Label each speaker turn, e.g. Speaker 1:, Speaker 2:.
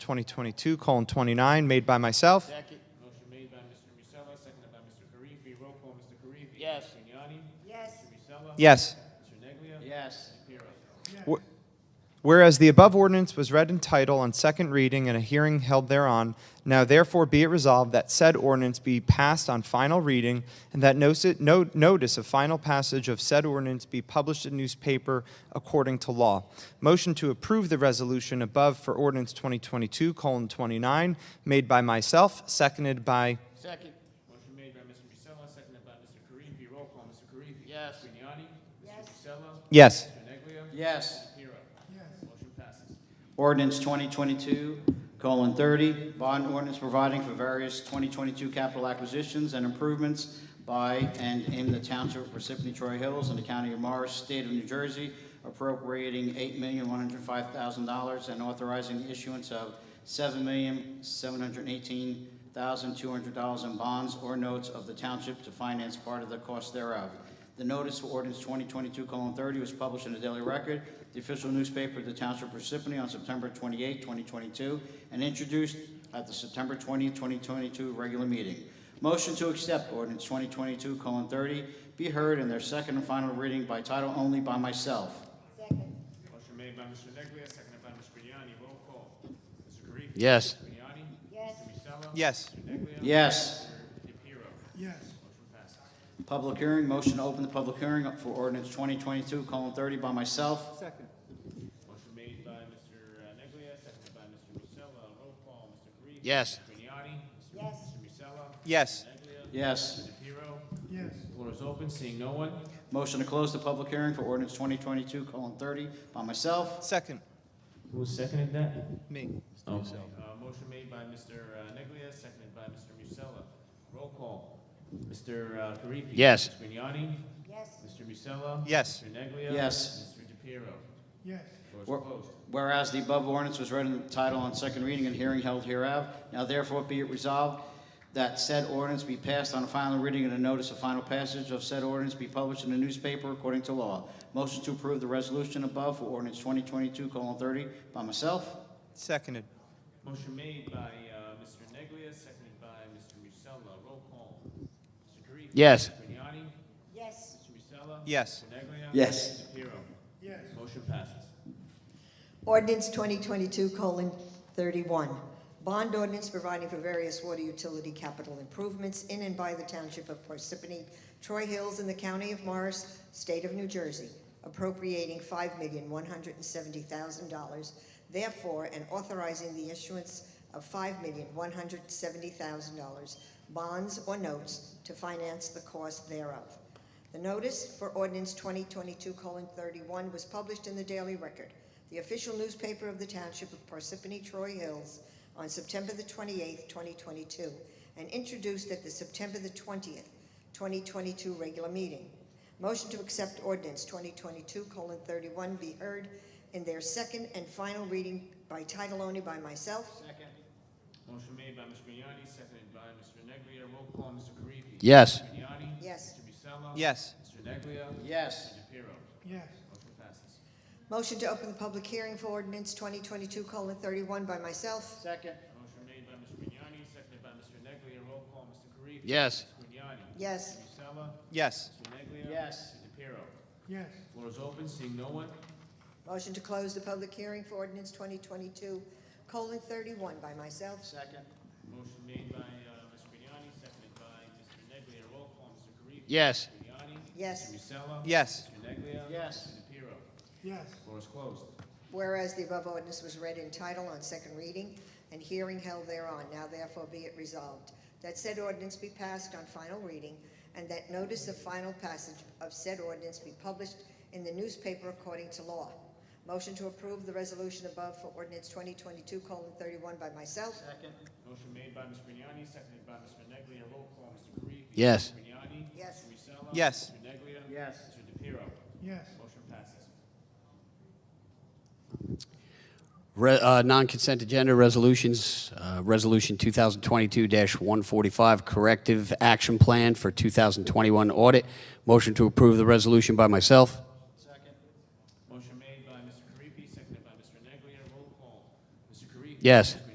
Speaker 1: 2022, colon 29, made by myself.
Speaker 2: Motion made by Mr. Musella, seconded by Mr. Karifi. Roll call, Mr. Karifi.
Speaker 3: Yes.
Speaker 2: Mr. Grignani.
Speaker 4: yes,
Speaker 2: Mr. Musella.
Speaker 1: Yes.
Speaker 2: Mr. Neglia.
Speaker 3: Yes.
Speaker 2: Shapiro.
Speaker 1: Whereas the above ordinance was read in title on second reading and a hearing held thereon, now therefore be it resolved that said ordinance be passed on final reading and that no, no notice of final passage of said ordinance be published in newspaper according to law. Motion to approve the resolution above for ordinance 2022 colon 29 made by myself, seconded by
Speaker 3: Second.
Speaker 2: Motion made by Mr. Musella, seconded by Mr. Karifi. Roll call, Mr. Karifi.
Speaker 3: Yes.
Speaker 2: Mr. Grignani. Mr. Musella.
Speaker 1: yes.
Speaker 2: Mr. Neglia.
Speaker 3: Yes.
Speaker 2: Shapiro. Motion passes.
Speaker 3: Ordinance 2022, colon 30, bond ordinance providing for various 2022 capital acquisitions and improvements by and in the township of Parsippany Troy Hills in the county of Morris, state of New Jersey, appropriating $8,105,000 and authorizing the issuance of $7,718,200 in bonds or notes of the township to finance part of the cost thereof. The notice for ordinance 2022:30 was published in the Daily Record, the official newspaper of the Township of Parsippany on September 28, 2022, and introduced at the September 20, 2022 regular meeting. Motion to accept ordinance 2022:30 be heard in their second and final reading by title only by myself.
Speaker 4: second,
Speaker 2: Motion made by Mr. Neglia, seconded by Mr. Grignani. Roll call, Mr. Karifi.
Speaker 3: Yes.
Speaker 2: Mr. Grignani.
Speaker 4: yes,
Speaker 2: Mr. Musella.
Speaker 1: Yes.
Speaker 2: Mr. Neglia.
Speaker 3: Yes.
Speaker 2: Mr. Shapiro.
Speaker 5: yes,
Speaker 2: Motion passes.
Speaker 3: Public hearing, motion to open the public hearing for ordinance 2022:30 by myself.
Speaker 2: Motion made by Mr. Neglia, seconded by Mr. Musella. Roll call, Mr. Karifi.
Speaker 3: Yes.
Speaker 2: Mr. Grignani.
Speaker 4: Yes.
Speaker 2: Mr. Musella.
Speaker 1: Yes.
Speaker 2: Neglia.
Speaker 3: Yes.
Speaker 2: Shapiro.
Speaker 5: yes,
Speaker 2: Floor is open, seeing no one.
Speaker 3: Motion to close the public hearing for ordinance 2022:30 by myself.
Speaker 1: Second.
Speaker 2: Who seconded that?
Speaker 1: Me.
Speaker 3: Oh.
Speaker 2: Uh, motion made by Mr. uh, Neglia, seconded by Mr. Musella. Roll call. Mr. uh, Karifi.
Speaker 3: Yes.
Speaker 2: Mr. Grignani.
Speaker 4: yes,
Speaker 2: Mr. Musella.
Speaker 1: Yes.
Speaker 2: Mr. Neglia.
Speaker 3: Yes.
Speaker 2: Mr. DePiero.
Speaker 5: yes,
Speaker 2: Floor
Speaker 3: Wor-
Speaker 2: is closed.
Speaker 3: Whereas the above ordinance was read in title on second reading and hearing held hereof, now therefore be it resolved that said ordinance be passed on final reading and a notice of final passage of said ordinance be published in the newspaper according to law. Motion to approve the resolution above for ordinance 2022:30 by myself.
Speaker 1: Seconded.
Speaker 2: Motion made by uh, Mr. Neglia, seconded by Mr. Musella. Roll call. Mr. Karifi.
Speaker 3: Yes.
Speaker 2: Mr. Grignani.
Speaker 4: yes,
Speaker 2: Mr. Musella.
Speaker 1: Yes.
Speaker 2: Mr. Neglia.
Speaker 3: Yes.
Speaker 2: Mr. DePiero.
Speaker 5: yes,
Speaker 2: Motion passes.
Speaker 6: Ordinance 2022:31, bond ordinance providing for various water utility capital improvements in and by the Township of Parsippany, Troy Hills, in the County of Morris, State of New Jersey, appropriating $5,170,000, therefore, and authorizing the issuance of $5,170,000 bonds or notes to finance the cost thereof. The notice for ordinance 2022:31 was published in the Daily Record, the official newspaper of the Township of Parsippany Troy Hills, on September the 28th, 2022, and introduced at the September the 20th, 2022 regular meeting. Motion to accept ordinance 2022:31 be heard in their second and final reading by title only by myself.
Speaker 2: Motion made by Mr. Grignani, seconded by Mr. Neglia. Roll call. Mr. Karifi.
Speaker 3: Yes.
Speaker 2: Mr. Grignani.
Speaker 6: Yes.
Speaker 2: Mr. Musella.
Speaker 1: Yes.
Speaker 2: Mr. Neglia.
Speaker 3: Yes.
Speaker 2: Mr. DePiero.
Speaker 5: yes,
Speaker 2: Motion passes.
Speaker 6: Motion to open the public hearing for ordinance 2022:31 by myself.
Speaker 3: Second.
Speaker 2: Motion made by Mr. Grignani, seconded by Mr. Neglia. Roll call, Mr. Karifi.
Speaker 3: Yes.
Speaker 2: Mr. Grignani.
Speaker 6: Yes.
Speaker 2: Mr. Musella.
Speaker 1: Yes.
Speaker 2: Mr. Neglia.
Speaker 3: Yes.
Speaker 2: Mr. DePiero.
Speaker 5: yes,
Speaker 2: Floor is open, seeing no one.
Speaker 6: Motion to close the public hearing for ordinance 2022, colon 31 by myself.
Speaker 3: Second.
Speaker 2: Motion made by uh, Mr. Grignani, seconded by Mr. Neglia. Roll call, Mr. Karifi.
Speaker 3: Yes.
Speaker 2: Mr. Grignani. Mr.
Speaker 6: Yes.
Speaker 2: Musella.
Speaker 1: Yes.
Speaker 2: Mr. Neglia.
Speaker 3: Yes.
Speaker 2: Mr. DePiero.
Speaker 5: yes,
Speaker 2: Floor is closed.
Speaker 6: Whereas the above ordinance was read in title on second reading and hearing held thereon, now therefore be it resolved that said ordinance be passed on final reading and that notice of final passage of said ordinance be published in the newspaper according to law. Motion to approve the resolution above for ordinance 2022, colon 31 by myself.
Speaker 3: Second.
Speaker 2: Motion made by Mr. Grignani, seconded by Mr. Neglia. Roll call, Mr. Karifi.
Speaker 3: Yes.
Speaker 2: Mr. Grignani.
Speaker 6: Yes.
Speaker 2: Mr. Musella.
Speaker 1: Yes.
Speaker 2: Mr. Neglia.
Speaker 3: Yes.
Speaker 2: Mr. DePiero.
Speaker 5: yes,
Speaker 2: Motion passes.
Speaker 7: Re- uh, Non-consent agenda resolutions, uh, Resolution 2022-145, Corrective Action Plan for 2021 Audit. Motion to approve the resolution by myself.
Speaker 3: Second.
Speaker 2: Motion made by Mr. Karifi, seconded by Mr. Neglia. Roll call, Mr. Karifi.
Speaker 7: Yes.
Speaker 2: Mr.